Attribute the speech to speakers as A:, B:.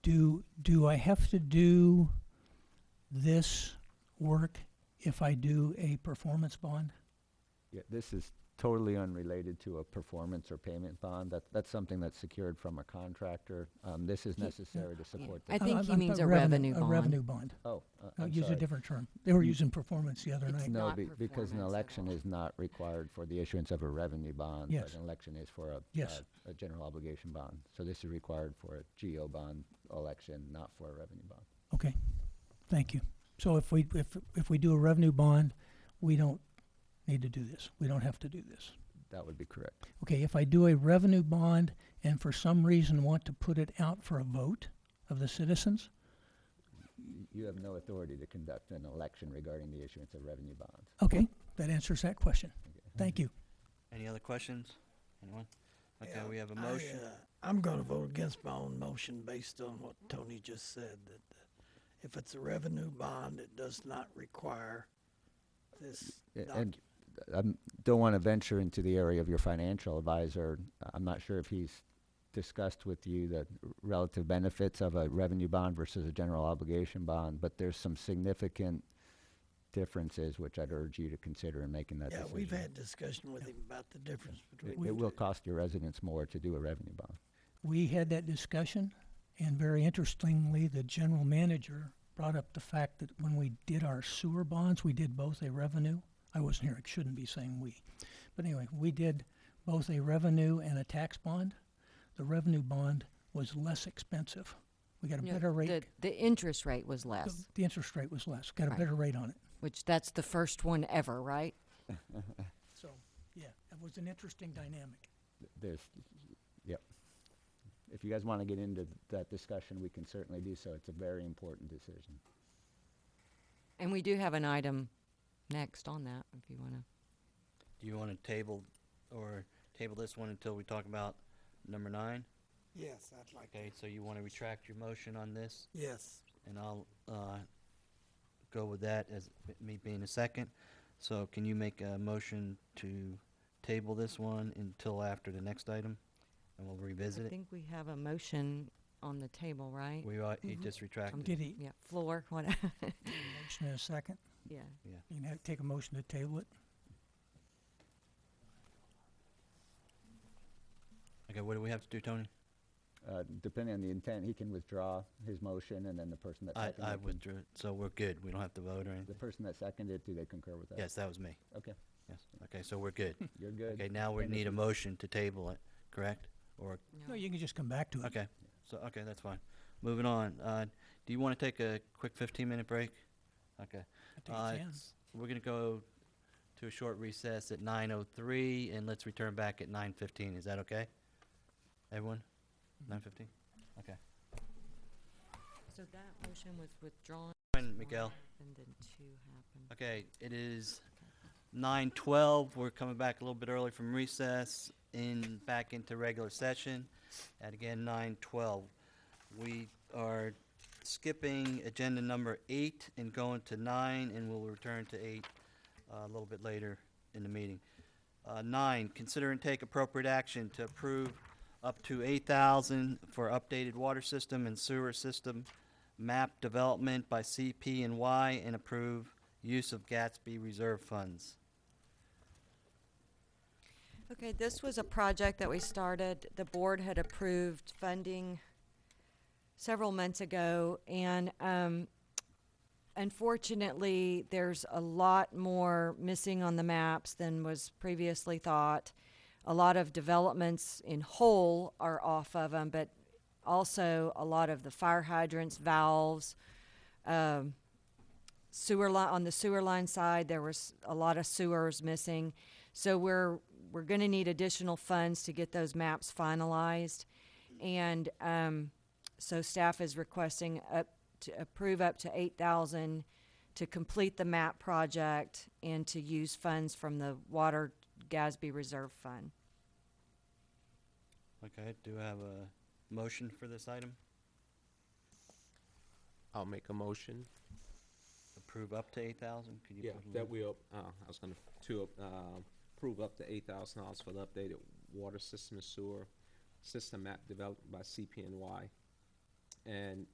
A: do, do I have to do this work if I do a performance bond?
B: Yeah, this is totally unrelated to a performance or payment bond. That, that's something that's secured from a contractor. Um, this is
A: Ye- yeah.
B: necessary to support
C: I
B: the,
A: Uh,
C: think
A: I'm-
C: he
A: I'm
C: means
A: talking
C: a revenue
A: A
C: bond.
A: revenue bond.
B: oh, uh,
A: Uh,
B: I'm
A: Use a
B: sorry.
A: different term. They were
B: Mm.
A: using performance the other
C: It's
A: night.
C: not-
B: No, be- because an
C: performance at
B: election
C: all.
B: is not required for the issuance of a revenue bond. but
A: Yes.
B: An election is for a.
A: Yes.
B: uh, A general obligation bond. So this is required for a GO bond election, not for a revenue bond.
A: Okay, thank you. So if we, if, if we do a revenue bond, we don't need to do this. We don't have to do this.
B: That would be correct.
A: Okay, if I do a revenue bond and for some reason want to put it out for a vote of the citizens,
B: Y- You have no authority to conduct an election regarding the issuance of revenue bonds.
A: okay, that answers that question. Thank you.
D: Any other questions? Anyone? Okay,
E: Yeah,
D: we have a
E: I,
D: motion.
E: uh, I'm gonna vote against my own motion based on what Tony just said, that uh, if it's a revenue bond, it does not require this
B: A-
E: document.
B: And I don't want to venture into the area of your financial advisor. I'm not sure if he's discussed with you the relative benefits of a revenue bond versus a general obligation bond, but there's some significant differences which I'd urge you to consider in making that
E: Yeah,
B: decision.
E: we've had discussion with him about the difference
B: It-
E: between.
B: It
E: the
B: will
E: two.
B: cost your residents more to do a revenue bond.
A: We had that discussion, and very interestingly, the general manager brought up the fact that when we did our sewer bonds, we did both a revenue. I wasn't here, I shouldn't be saying we. But anyway, we did both a revenue and a tax bond. The revenue bond was less expensive. We got a
C: No,
A: better
C: The,
A: rate.
C: the interest rate was
A: The-
C: less,
A: The interest rate was less, got a
C: Right.
A: better rate on it.
C: which that's the first one ever, right?
A: So, yeah, it was an interesting dynamic.
B: Th- There's, yep. If you guys want to get into th- that discussion, we can certainly do so. It's a very important decision.
C: And we do have an item next on that, if you want to.
D: Do you want to table or table this one until we talk about number nine?
E: Yes, I'd like,
D: Okay, so you want to retract your motion on this,
E: yes,
D: and I'll uh, go with that as b- me being a second. So can you make a motion to table this one until after the next item, and we'll
C: I
D: revisit it?
C: think we have a motion on the table, right?
D: We are, he
A: Mhm.
D: just retracted.
A: Did he,
C: Yeah, floor, what,
A: motion in a second?
C: yeah.
A: You can ha- take a motion to table it?
D: Okay, what do we have to do, Tony?
B: Uh, Depending on the intent, he can withdraw his motion, and then the person that
D: I,
B: seconded.
D: I
B: can-
D: withdrew, it, so we're good. We don't have to vote or
B: The
D: anything.
B: person that seconded, do they concur with that?
D: Yes, that was me.
B: Okay,
D: Yes. Okay, so we're good.
B: you're good.
D: Okay, now we
B: Then if
D: need a
B: you-
D: motion to table it, correct? Or,
A: No, you can just come back to it.
D: okay, so, okay, that's fine. Moving on, uh, do you wanna take a quick fifteen-minute break? Okay,
A: I think
D: Uh,
A: it's in.
D: we're gonna go to a short recess at nine oh three, and let's return back at nine fifteen, is that okay? Everyone?
A: Mm-hmm.
D: Nine fifteen? Okay.
C: So that motion was withdrawn.
D: Fine, Miguel.
C: And then two happened.
D: Okay, it is nine twelve. We're coming back a little bit early from recess in, back into regular session at again nine twelve. We are skipping agenda number eight and going to nine, and we'll return to eight uh, a little bit later in the meeting. Uh, nine, consider and take appropriate action to approve up to eight thousand for updated water system and sewer system map development by CP and Y and approve use of Gatsby reserve funds.
C: Okay, this was a project that we started. The board had approved funding several months ago, and um, unfortunately, there's a lot more missing on the maps than was previously thought. A lot of developments in whole are off of them, but also a lot of the fire hydrants, valves, um, sewer line on the sewer line side there was a lot of sewers missing so we're we're going to need additional funds to get those maps finalized and um, so staff is requesting up to approve up to 8000 to complete the map project and to use funds from the water gasby reserve fund
D: Okay, do I have a motion for this item?
F: I'll make a motion.
D: Approve up to eight thousand? Could you
F: Yeah,
D: put a
F: that
D: little-
F: will, uh, I was gonna, f- to, uh, approve up to eight thousand dollars for the updated water system and sewer system map developed by CPNY and